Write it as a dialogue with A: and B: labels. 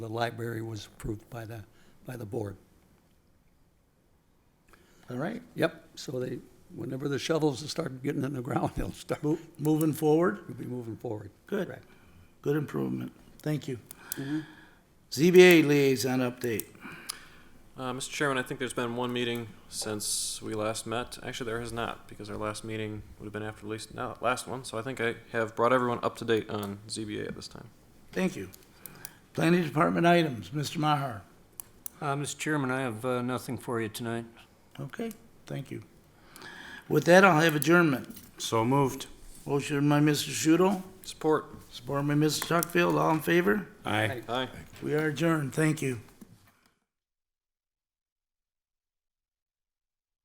A: the library was approved by the, by the board.
B: All right,
A: Yep, so they, whenever the shovels start getting in the ground, they'll start,
B: mo- moving forward,
A: we'll be moving forward.
B: good,
A: Correct.
B: good improvement, thank you. ZBA liaison update,
C: Uh, Mr. Chairman, I think there's been one meeting since we last met. Actually, there has not, because our last meeting would have been after the least, no, last one. So I think I have brought everyone up to date on ZBA at this time.
B: thank you. Planning Department items, Mr. Maher,
D: Uh, Mr. Chairman, I have uh, nothing for you tonight.
B: okay, thank you. With that, I'll have adjournment.
E: So moved.
B: Motion by Mr. Shudo,
C: Support.
B: support by Mr. Tuckfield, all in favor?
E: Aye.
C: Aye.
B: We are adjourned, thank you.